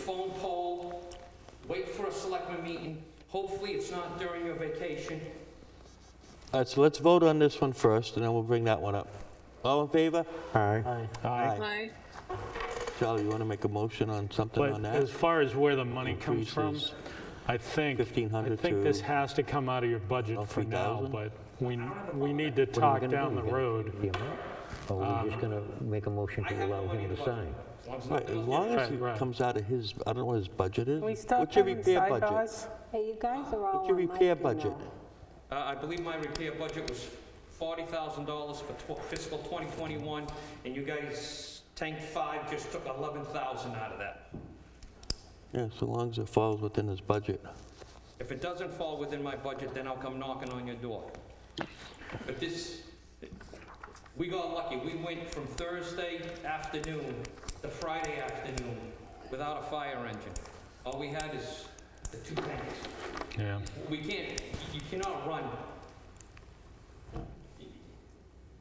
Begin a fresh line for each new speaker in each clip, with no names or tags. phone poll, wait for a selectman meeting. Hopefully, it's not during your vacation.
All right, so let's vote on this one first, and then we'll bring that one up. All in favor?
Aye.
Aye.
Aye.
Charlie, you want to make a motion on something on
But as
that?
far as where the money comes from,
Increases
I think, I
1,500
think this
to-
has to come out of your budget
About
for now,
3,000?
but we, we need to talk down the road.
Or we're just going to make a motion
Um, I
to
have
allow
no idea
him to
about
sign?
As long as
Right,
nothing
as
else-
long as
Right,
it
right.
comes out of his, I don't know what his budget is.
Can we stop
What's your
having
repair
side Oh,
budget?
guys?
Hey, you guys are all
What's your
on my
repair
email.
budget?
Uh, I believe my repair budget was $40,000 for tw- fiscal 2021, and you guys, tank five just took 11,000 out of that.
Yeah, so long as it falls within his budget.
If it doesn't fall within my budget, then I'll come knocking on your door. But this, we got lucky. We went from Thursday afternoon to Friday afternoon without a fire engine. All we had is the two tanks.
Yeah.
We can't, you cannot run.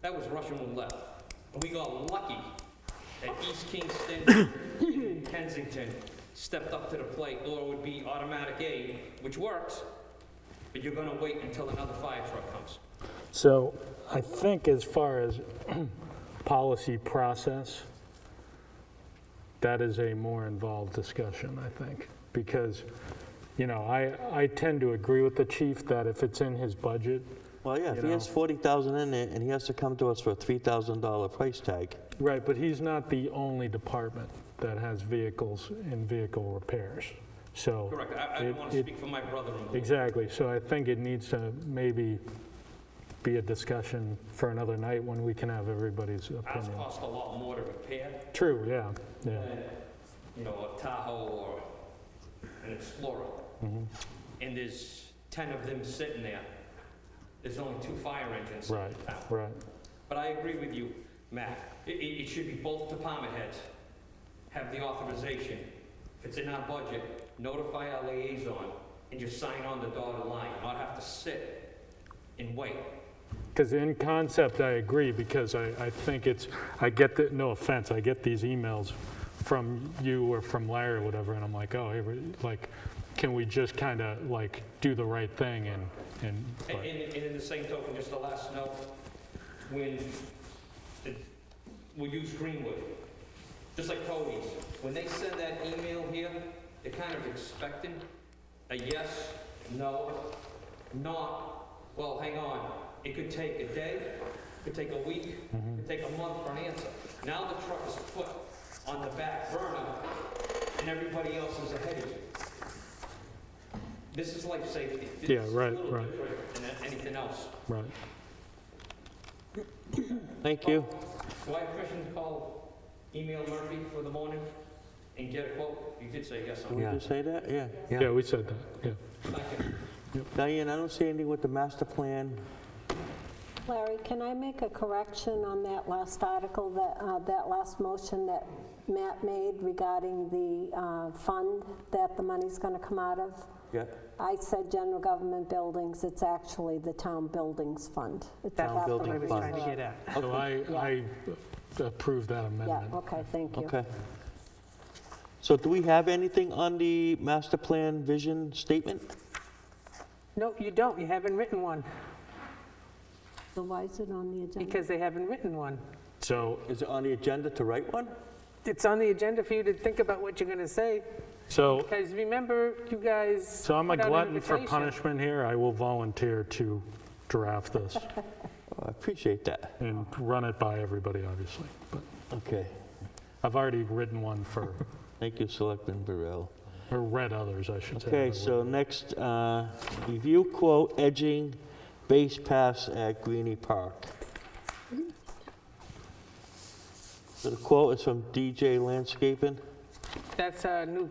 That was Russian roulette. We got lucky that East Kingston and Kensington stepped up to the plate, or it would be automatic aid, which works, but you're gonna wait until another fire truck comes.
So I think as far as policy process, that is a more involved discussion, I think. Because, you know, I, I tend to agree with the chief that if it's in his budget,
Well, yeah, if
You
he has
know.
40,000 in it, and he has to come to us for a $3,000 price tag,
Right, but he's not the only department that has vehicles and vehicle repairs, so.
Correct, I, I don't
it-
wanna
it-
speak for my brother-in-law.
Exactly, so I think it needs to maybe be a discussion for another night when we can have everybody's
Ours
opinion.
cost a lot more to repair
True, yeah, yeah,
than, you know, a Tahoe or an Explorer.
Mm-hmm.
And there's 10 of them sitting there. There's only two fire engines. in
right,
town.
right.
But I agree with you, Matt. It, it, it should be both department heads have the authorization. If it's in our budget, notify our liaison and just sign on the dotted line, not have to sit and wait.
Because in concept, I agree, because I, I think it's, I get the, no offense, I get these emails from you or from Larry or whatever, and I'm like, oh, hey, we- like, can we just kind of like do the right thing and, and. but-
And, and, and in the same token, just the last note, when, it, we'll use Greenwood, just like Cody's, when they send that email here, they're kind of expecting a yes, no, not, well, hang on, it could take a day, it could take a week,
Mm-hmm.
it could take a month for an answer. Now the truck is put on the back burner, and everybody else is ahead of you. This is life safety. This
Yeah,
is a
right,
little
right.
different Than anything else.
Right.
thank you.
Do I have permission to call, email Murphy for the morning and get a quote? You did say yes
Did
on
we
Yeah.
just say that? Yeah.
Yeah, we said that, yeah.
that.
Diane, I don't see anything with the master plan.
Larry, can I make a correction on that last article, that, uh, that last motion that Matt made regarding the uh, fund that the money's going to come out of?
Yeah.
I said general government buildings, it's actually the town buildings fund. It's
That's
about the
building
what I was
fund.
trying to get at.
So I, I approve that
Yeah,
amendment.
okay, thank you.
Okay. So do we have anything on the master plan vision statement?
No, you don't, you haven't written one,
So why is it on the agenda?
because they haven't written one.
So,
Is it on the agenda to write one?
It's on the agenda for you to think about what you're gonna say,
so,
because remember, you guys.
so I'm a
put out an
glutton for
invitation.
punishment here. I will volunteer to draft this
Oh, I appreciate that.
and run it by everybody, obviously. But
Okay.
I've already written one for,
Thank you, Selectman Burrell.
or read others, I should say.
Okay, so next, uh, review quote edging base pass at Greenie Park.
Mm-hmm.
So the quote is from DJ Landscaping,
That's our new,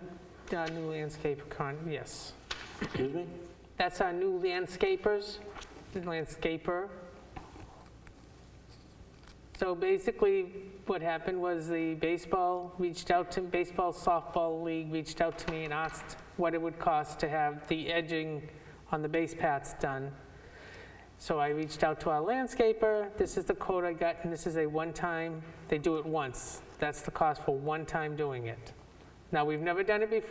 our new landscape con, yes.
excuse me?
That's our new landscapers, landscaper. So basically, what happened was the baseball reached out to, baseball softball league reached out to me and asked what it would cost to have the edging on the base paths done. So I reached out to our landscaper, this is the quote I got, and this is a one-time, they do it once. That's the cost for one time doing it. Now, we've never done it before.